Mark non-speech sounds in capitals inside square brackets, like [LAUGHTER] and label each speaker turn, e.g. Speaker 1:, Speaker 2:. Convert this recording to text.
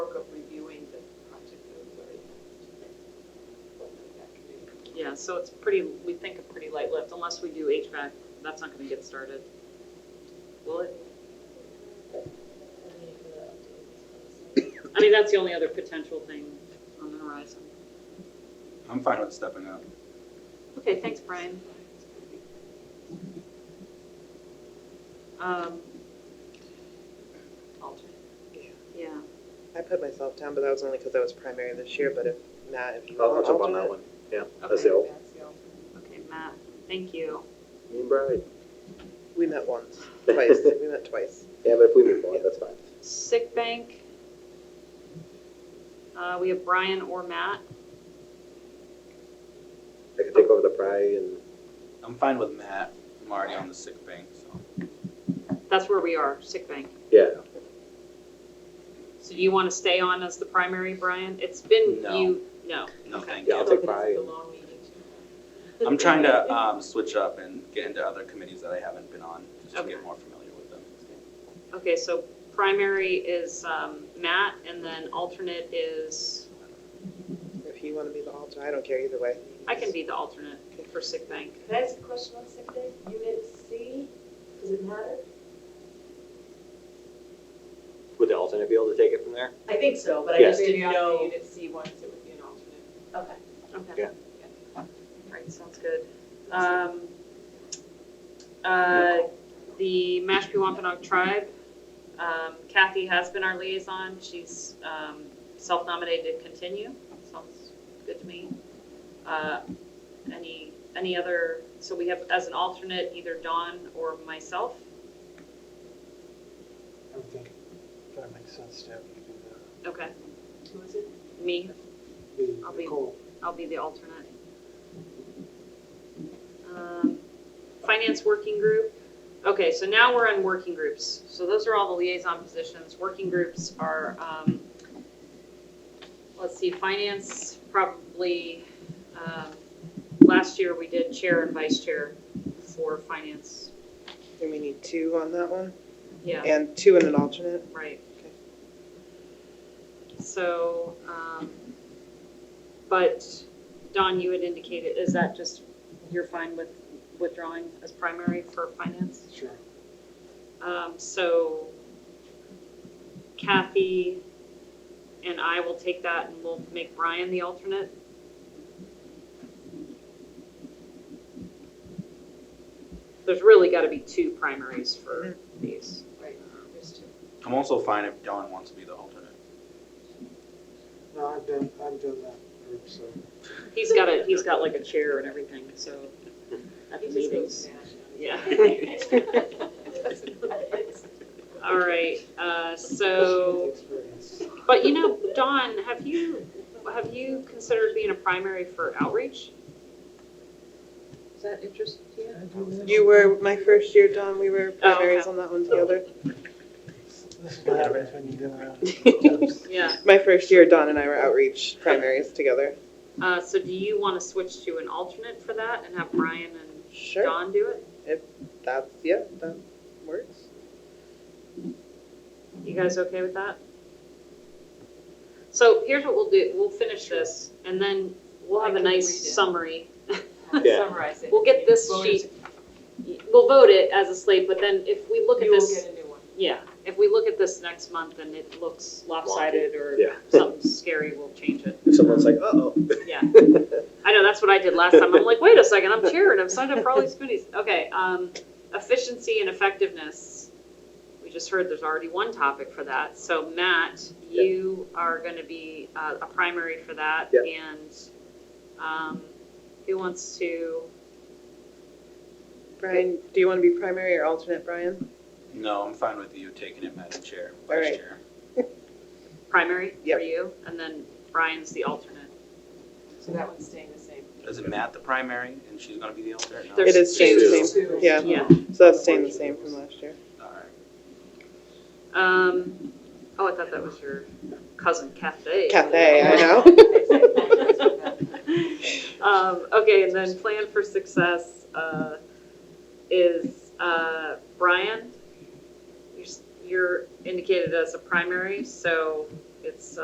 Speaker 1: yeah, so it's pretty, we think a pretty light lift, unless we do HVAC, that's not gonna get started. Will it? I mean, that's the only other potential thing on the horizon.
Speaker 2: I'm fine with stepping up.
Speaker 1: Okay, thanks, Brian. Um, alternate, yeah.
Speaker 3: I put myself down, but that was only because I was primary this year, but if Matt, if you
Speaker 4: I'll
Speaker 3: want
Speaker 4: I'll
Speaker 3: to
Speaker 4: jump on that one. Yeah, that's the old.
Speaker 1: Okay, Matt, thank you.
Speaker 4: Me and Brian.
Speaker 3: We met once,
Speaker 4: [LAUGHS]
Speaker 3: twice, we met twice.
Speaker 4: Yeah, but if we move on, that's fine.
Speaker 1: Sick bank. Uh, we have Brian or Matt.
Speaker 4: I could take over the Bri and
Speaker 2: I'm fine with Matt. I'm already on the sick bank, so.
Speaker 1: That's where we are, sick bank.
Speaker 4: yeah.
Speaker 1: So do you want to stay on as the primary, Brian? It's been
Speaker 2: No.
Speaker 1: you, no.
Speaker 2: No,
Speaker 1: Okay.
Speaker 2: thank
Speaker 4: Yeah, I'll
Speaker 2: you.
Speaker 4: take Bri and
Speaker 2: I'm trying to um, switch up and get into other committees that I haven't been on, just to
Speaker 1: Okay.
Speaker 2: get more familiar with them.
Speaker 1: Okay, so primary is um, Matt, and then alternate is,
Speaker 3: If you want to be the alter, I don't care either way.
Speaker 1: I can be the alternate for sick bank.
Speaker 5: Can I ask a question on sick day? Unit C, does it matter?
Speaker 4: would the alternate be able to take it from there?
Speaker 5: I think so, but
Speaker 4: I just
Speaker 6: Maybe on the unit C ones, it would be an alternate.
Speaker 5: Okay.
Speaker 1: Okay.
Speaker 4: Yeah.
Speaker 1: Right, sounds good. Um, uh, The Mashpee Wampanoag Tribe, um, Kathy has been our liaison. She's um, self-nominated to continue. Sounds good to me. Uh, Any, any other, so we have as an alternate either Dawn or myself.
Speaker 7: I would think that makes sense to have you do
Speaker 1: Okay,
Speaker 6: Who is it?
Speaker 1: me,
Speaker 7: that.
Speaker 1: I'll
Speaker 7: The
Speaker 1: be-
Speaker 7: Nicole,
Speaker 1: I'll be the alternate. Um, Finance Working Group, okay, so now we're on working groups. So those are all the liaison positions. Working groups are, um, let's see, finance probably, um, last year we did chair and vice chair for finance.
Speaker 3: And we need two on that one,
Speaker 1: Yeah,
Speaker 3: and two and an alternate.
Speaker 1: right. So, um, but Don, you had indicated, is that just, you're fine with withdrawing as primary for finance?
Speaker 7: sure.
Speaker 1: Um, so Kathy and I will take that and we'll make Brian the alternate. There's really gotta be two primaries for these.
Speaker 6: Right, there's two.
Speaker 2: I'm also fine if Dawn wants to be the alternate.
Speaker 7: No, I've done, I've done that group, so.
Speaker 1: He's got a, he's got like a chair and everything, so at the
Speaker 6: He just goes
Speaker 1: meetings.
Speaker 6: smash it.
Speaker 1: Yeah.
Speaker 6: [LAUGHS] That's-
Speaker 1: All right, uh, so,
Speaker 7: Especially with the experience.
Speaker 1: but you know, Dawn, have you, have you considered being a primary for outreach?
Speaker 6: Does that interest you?
Speaker 3: You were, my first year, Don, we were
Speaker 1: Oh, okay.
Speaker 3: primaries on that one together.
Speaker 7: This is what happens when you get around.
Speaker 3: [LAUGHS]
Speaker 7: to
Speaker 1: Yeah.
Speaker 3: My first year, Don and I were outreach primaries together.
Speaker 1: Uh, so do you want to switch to an alternate for that and have Brian and
Speaker 3: Sure,
Speaker 1: Dawn do it?
Speaker 3: that's, yeah, that works.
Speaker 1: You guys okay with that? So here's what we'll do, we'll finish this, and then we'll have
Speaker 6: I
Speaker 1: a
Speaker 6: can read
Speaker 1: nice
Speaker 6: it.
Speaker 1: summary.
Speaker 4: Yeah.
Speaker 6: Summarize it.
Speaker 1: We'll get this
Speaker 6: Voters-
Speaker 1: sheet, we'll vote it as a slate, but then if we look at
Speaker 6: You will
Speaker 1: this.
Speaker 6: get a new one.
Speaker 1: Yeah, if we look at this next month and it looks lopsided or
Speaker 4: Yeah. [LAUGHS]
Speaker 1: something scary, we'll change it.
Speaker 4: If someone's like, uh-oh.
Speaker 1: Yeah. I know, that's what I did last time. I'm like, wait a second, I'm cheering, I'm signed up for all these goodies. Okay, um, efficiency and effectiveness. We just heard there's already one topic for that. So Matt, you are gonna be uh, a primary for that.
Speaker 4: Yeah.
Speaker 1: And, um, who wants to,
Speaker 3: Brian, do you want to be primary or alternate, Brian?
Speaker 2: No, I'm fine with you taking it, Madam Chair,
Speaker 3: All
Speaker 2: Vice
Speaker 3: right.
Speaker 2: Chair.
Speaker 1: primary for
Speaker 3: Yep.
Speaker 1: you? And then Brian's the alternate.
Speaker 6: So that one's staying the same.
Speaker 2: Is it Matt the primary and she's gonna be the alternate? No?
Speaker 1: There's-
Speaker 3: It is staying the same,
Speaker 6: Two.
Speaker 3: yeah.
Speaker 1: Yeah.
Speaker 3: so that's staying the same from last year.
Speaker 2: All right.
Speaker 1: Um, oh, I thought that was your cousin Cafe.
Speaker 3: Cafe, I know.
Speaker 1: Um, okay, and then plan for success, uh, is, uh, Brian. You're s- You're indicated as a primary, so it's,